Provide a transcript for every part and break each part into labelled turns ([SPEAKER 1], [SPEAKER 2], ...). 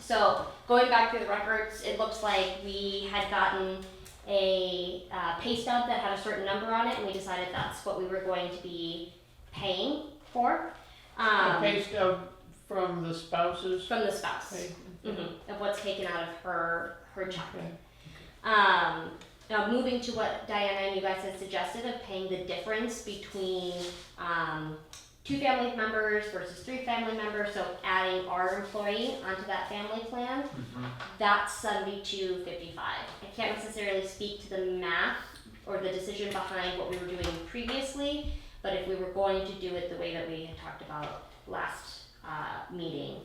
[SPEAKER 1] So going back through the records, it looks like we had gotten a uh, pay stub that had a certain number on it, and we decided that's what we were going to be paying for um,
[SPEAKER 2] Okay, so from the spouses?
[SPEAKER 1] from the spouse
[SPEAKER 2] Okay.
[SPEAKER 1] Mhm, of what's taken out of her her check.
[SPEAKER 2] Mm-hmm. Okay.
[SPEAKER 1] Um, now moving to what Diana and you guys had suggested of paying the difference between um, two family members versus three family members, so adding our employee onto that family plan,
[SPEAKER 2] Mm-hmm.
[SPEAKER 1] that's seventy-two fifty-five. I can't necessarily speak to the math or the decision behind what we were doing previously, but if we were going to do it the way that we had talked about last uh, meeting,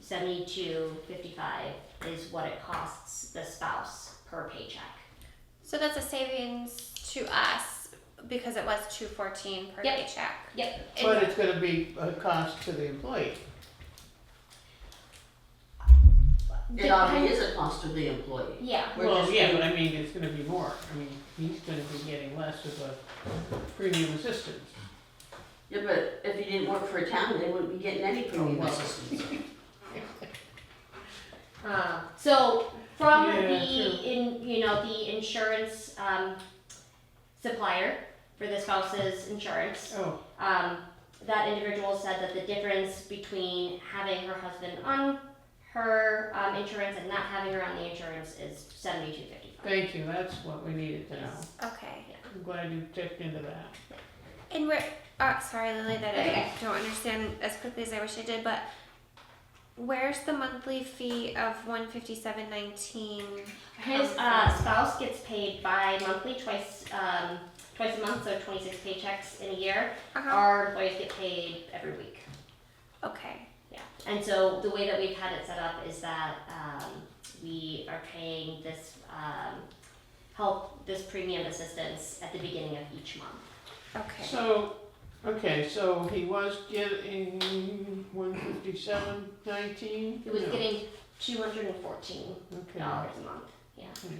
[SPEAKER 1] seventy-two fifty-five is what it costs the spouse per paycheck.
[SPEAKER 3] So that's a savings to us because it was two fourteen per
[SPEAKER 1] Yep.
[SPEAKER 3] paycheck.
[SPEAKER 1] Yep.
[SPEAKER 3] It-
[SPEAKER 2] But it's gonna be a cost to the employee.
[SPEAKER 4] It already is a cost to the employee.
[SPEAKER 1] Yeah.
[SPEAKER 4] We're
[SPEAKER 2] Well,
[SPEAKER 4] just
[SPEAKER 2] yeah,
[SPEAKER 4] doing-
[SPEAKER 2] but I mean, it's gonna be more. I mean, he's gonna be getting less of a premium assistance.
[SPEAKER 4] Yeah, but if he didn't work for a town, they wouldn't be getting any premium
[SPEAKER 2] Oh, well.
[SPEAKER 4] assistance.
[SPEAKER 1] Uh, so from
[SPEAKER 2] Ah. Yeah,
[SPEAKER 1] the
[SPEAKER 2] true.
[SPEAKER 1] in you know the insurance um, supplier for the spouse's insurance,
[SPEAKER 2] Oh,
[SPEAKER 1] um, that individual said that the difference between having her husband on her um, insurance and not having her on the insurance is seventy two fifty five.
[SPEAKER 2] thank you, that's what we needed to know.
[SPEAKER 3] Okay.
[SPEAKER 2] I'm glad you checked into that.
[SPEAKER 3] And we're uh, sorry, Lily, that
[SPEAKER 1] Okay.
[SPEAKER 3] I don't understand as quickly as I wish I did, but where's the monthly fee of one fifty seven nineteen?
[SPEAKER 1] His uh, spouse gets paid bi monthly, twice um, twice a month, so twenty six paychecks in a year.
[SPEAKER 3] Uh-huh.
[SPEAKER 1] Our employees get paid every week.
[SPEAKER 3] Okay.
[SPEAKER 1] And so the way that we've had it set up is that um, we are paying this um, help, this premium assistance at the beginning of each month.
[SPEAKER 3] Okay.
[SPEAKER 2] So, okay, so he was getting one fifty-seven nineteen?
[SPEAKER 1] It was getting two hundred and fourteen dollars a month.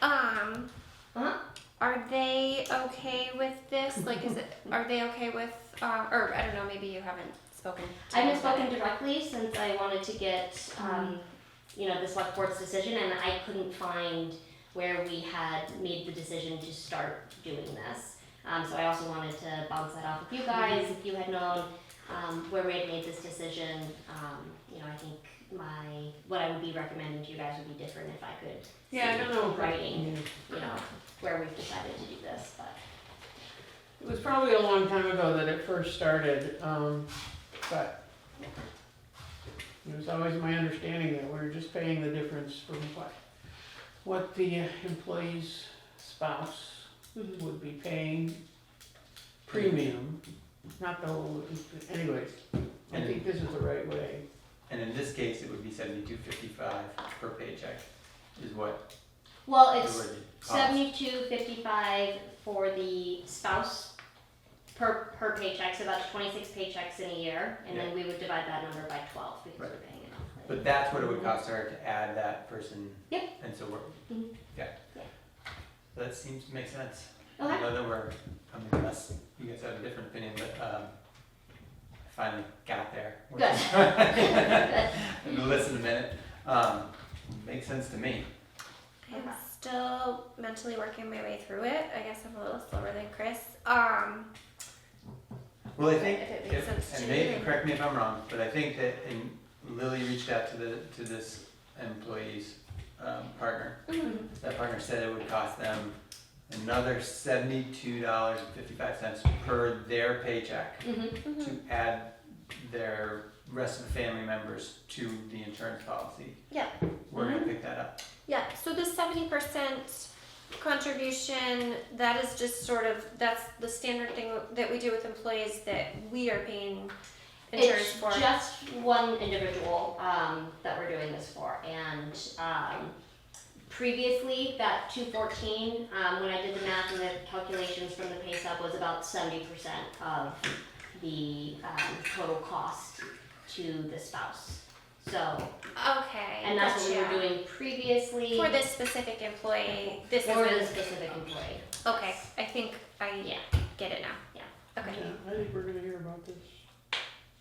[SPEAKER 3] Um
[SPEAKER 1] Uh-huh.
[SPEAKER 3] are they okay with this? Like is it are they okay with uh, or I don't know, maybe you haven't spoken to
[SPEAKER 1] I
[SPEAKER 3] them
[SPEAKER 1] haven't
[SPEAKER 3] about
[SPEAKER 1] spoken
[SPEAKER 3] it.
[SPEAKER 1] directly since I wanted to get, um, you know, the select board's decision, and I couldn't find where we had made the decision to start doing this. Um, so I also wanted to bounce that off of you guys, if you had known, um, where we had made this decision, um, you know, I think my, what I would be recommending to you guys would be different if I could,
[SPEAKER 2] Yeah, I don't know. if I-
[SPEAKER 1] Writing.
[SPEAKER 2] yeah.
[SPEAKER 1] you know, where we've decided to do this, but,
[SPEAKER 2] It was probably a long time ago that it first started, um, but it was always my understanding that we were just paying the difference from what, what the employee's spouse
[SPEAKER 1] mm-hmm.
[SPEAKER 2] would be paying premium, not the whole, anyways, I think this is the right way.
[SPEAKER 5] And in this case, it would be seventy-two fifty-five per paycheck is what
[SPEAKER 1] well,
[SPEAKER 5] it
[SPEAKER 1] it's,
[SPEAKER 5] would cost.
[SPEAKER 1] Seventy-two fifty-five for the spouse per, per paycheck, so that's twenty-six paychecks in a year, and then we would divide that number by twelve because we're paying it monthly.
[SPEAKER 5] But that's what it would cost her to add that person.
[SPEAKER 1] Yep.
[SPEAKER 5] And so we're,
[SPEAKER 1] Mhm.
[SPEAKER 5] yeah.
[SPEAKER 1] Yeah.
[SPEAKER 5] That seems to make sense. I
[SPEAKER 1] Okay,
[SPEAKER 5] know that we're, I mean, unless you guys have a different opinion, but, um, I finally got there. which is- I've been listening a minute, um, makes sense to me.
[SPEAKER 3] I'm still mentally working my way through it. I guess I'm a little slower than Chris. Um,
[SPEAKER 5] Well, I think,
[SPEAKER 3] If it makes sense
[SPEAKER 5] if,
[SPEAKER 3] to
[SPEAKER 5] and
[SPEAKER 3] you.
[SPEAKER 5] maybe, correct me if I'm wrong, but I think that, and Lily reached out to the, to this employee's, um, partner.
[SPEAKER 1] Mhm.
[SPEAKER 5] That partner said it would cost them another seventy-two dollars and fifty-five cents per their paycheck
[SPEAKER 1] Mhm.
[SPEAKER 3] mhm.
[SPEAKER 5] to add their rest of the family members to the insurance policy.
[SPEAKER 3] Yeah. Mm-hmm.
[SPEAKER 5] We're gonna pick that up.
[SPEAKER 3] Yeah, so the seventy percent contribution, that is just sort of, that's the standard thing that we do with employees that we are paying insurance
[SPEAKER 1] It's
[SPEAKER 3] for.
[SPEAKER 1] just one individual, um, that we're doing this for, and, um, previously, that two fourteen, um, when I did the math and the calculations from the pay stub was about seventy percent of the, um, total cost to the spouse. So,
[SPEAKER 3] Okay.
[SPEAKER 1] And that's what we were
[SPEAKER 3] gotcha.
[SPEAKER 1] doing previously
[SPEAKER 3] For this specific employee, this is,
[SPEAKER 1] for the specific employee.
[SPEAKER 3] okay, I think I
[SPEAKER 1] Yeah.
[SPEAKER 3] get it now.
[SPEAKER 1] Yeah.
[SPEAKER 3] Okay,
[SPEAKER 2] Yeah, I think we're gonna hear about this.